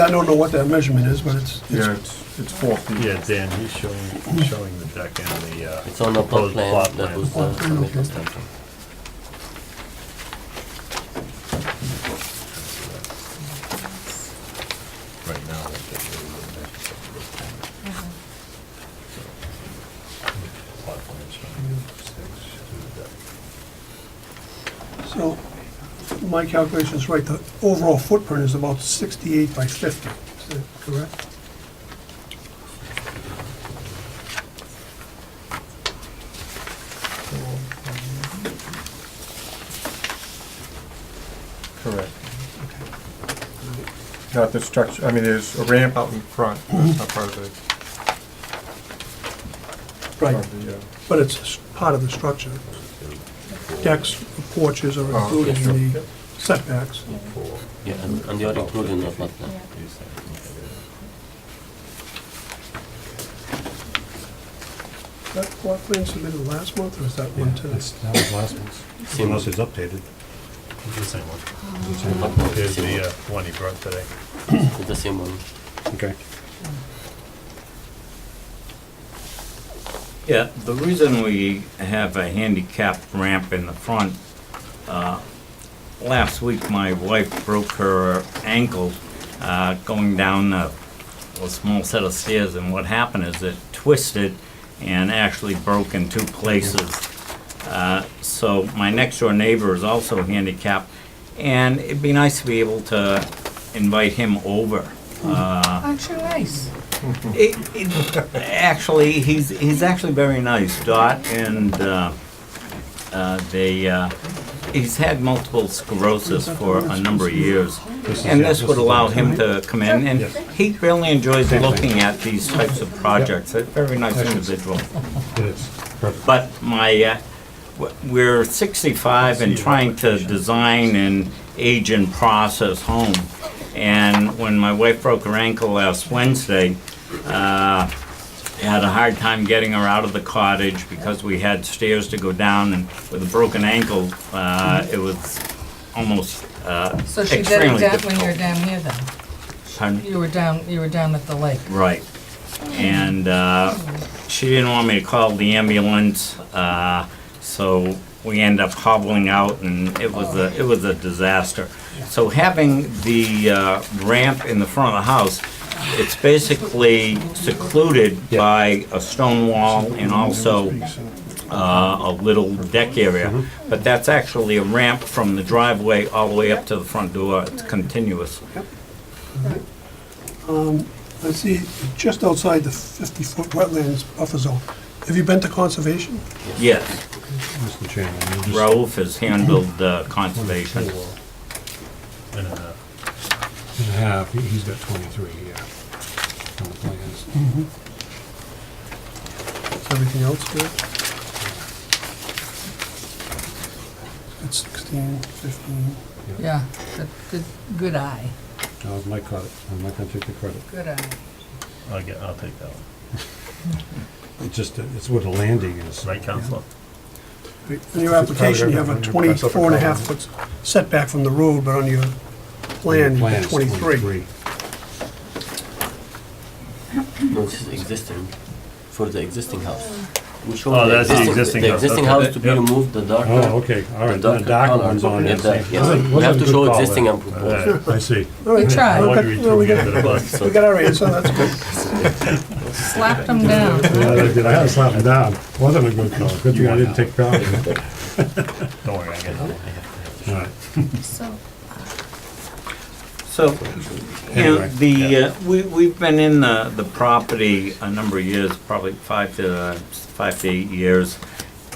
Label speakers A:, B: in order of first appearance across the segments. A: I don't know what that measurement is, but it's,
B: Yeah, it's, it's four feet.
C: Yeah, Dan, he's showing, he's showing the deck and the, uh.
D: It's on the plot
C: proposed plot
D: plan that
C: plan.
D: was uh,
A: Okay.
D: submitted.
C: Right now. that's what we're looking at, so it's a little corner. So, plot plan showing six to the deck.
A: so, my calculation's right, the overall footprint is about 68 by 50, is that correct?
B: Correct. Not the structure, I mean, there's a ramp out in front, that's not part of the, part
A: Right,
B: of the, uh,
A: but it's s- part of the structure. Decks, porches are
B: Oh, okay,
A: included in the setbacks.
D: Yeah, and and you are including the plot plan.
A: That plot plan submitted last month, or is that one today?
C: That was last month's.
D: Same
C: Unless
D: one.
C: it's updated. It's the same one.
D: Plot plan is
C: Here's
D: the same
C: the,
D: one.
C: uh, one he brought today.
D: It's the same one.
C: Okay.
E: Yeah, the reason we have a handicap ramp in the front, uh, last week my wife broke her ankle uh, going down a a small set of stairs, and what happened is it twisted and actually broke in two places. Uh, So my next door neighbor is also handicapped, and it'd be nice to be able to invite him over. Uh,
F: Hmm. Aren't you nice?
E: it, it, actually, he's he's actually very nice, Dot, and uh, uh, they uh, he's had multiple sclerosis for a number of years, and this would allow him to come in, and he really enjoys looking at these types of projects. A very nice individual.
C: It is. Perfect.
E: But my, uh, w- we're 65 and trying to design an age in process home. And when my wife broke her ankle last Wednesday, uh, I had a hard time getting her out of the cottage because we had stairs to go down and with a broken ankle, uh, it was almost uh,
F: So she did it
E: extremely
F: down when you were
E: difficult.
F: down here then?
E: Pardon?
F: You were down, you were down at the lake.
E: Right. And uh, she didn't want me to call the ambulance, uh, so we end up hobbling out, and it was a, it was a disaster. So having the uh, ramp in the front of the house, it's basically secluded by a stone wall and also uh, a little deck area. But that's actually a ramp from the driveway all the way up to the front door. It's continuous.
A: I see, just outside the 50-foot wetlands buffer zone. Have you been to conservation?
E: Yes.
C: Mr. Chairman, you just.
E: Raouf has handled uh, conservation.
C: And a half. And a half, He- he's got twenty-three here on the plans.
A: Mm-hmm. Is everything else good? It's 16, 15.
F: Yeah, good- good, good eye,
C: That was my credit, I'm not gonna take the credit.
F: good eye.
C: I'll get, I'll take that one. It's just, it's what a landing is. Right, Counselor?
A: In your application, you have a 24 and a half foot setback from the road, but on your plan, you
C: Plan
A: have
C: is
A: 23.
D: No, this is existing, for the existing house. We show
C: Oh, that's the existing
D: The
C: house,
D: existing
C: okay.
D: house to be
C: Yep.
D: removed, the darker.
C: Oh, okay, all right, the
D: darker
C: dark
D: color.
C: one's on
D: Yeah,
C: there.
D: that-
C: see.
D: yes.
C: Wasn't-
D: We
C: wasn't
D: have
C: a
D: to
C: good
D: show
C: call
D: existing
C: there.
D: and proposed.
C: Alright, I see.
A: All right,
F: tried.
A: well,
C: Wondering
A: good.
C: till
A: Well,
C: we
A: we
C: get to
A: got-
C: the bus.
A: We got our answer, that's good.
F: Slapped him down.
C: Yeah, I did, I had to slap him down. Wasn't a good call, good thing I didn't take power.
D: Don't worry, I get it.
C: All right.
F: So,
E: So, you know,
C: Anyway,
E: the, uh, we, we've been in the, the property a number of years, probably five to, uh, five to eight years.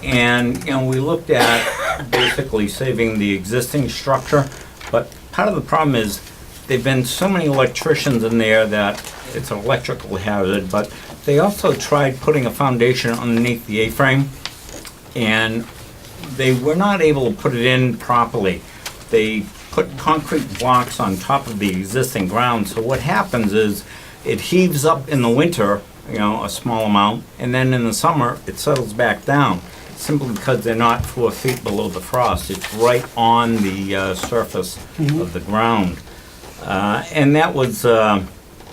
E: And, you know, we looked at basically saving the existing structure, but part of the problem is there've been so many electricians in there that it's an electrical hazard, but they also tried putting a foundation underneath the A-frame. and they were not able to put it in properly. They put concrete blocks on top of the existing ground, so what happens is it heaves up in the winter, you know, a small amount, and then in the summer, it settles back down, simply because they're not four feet below the frost. It's right on the uh, surface of the ground. Uh, And that was, um,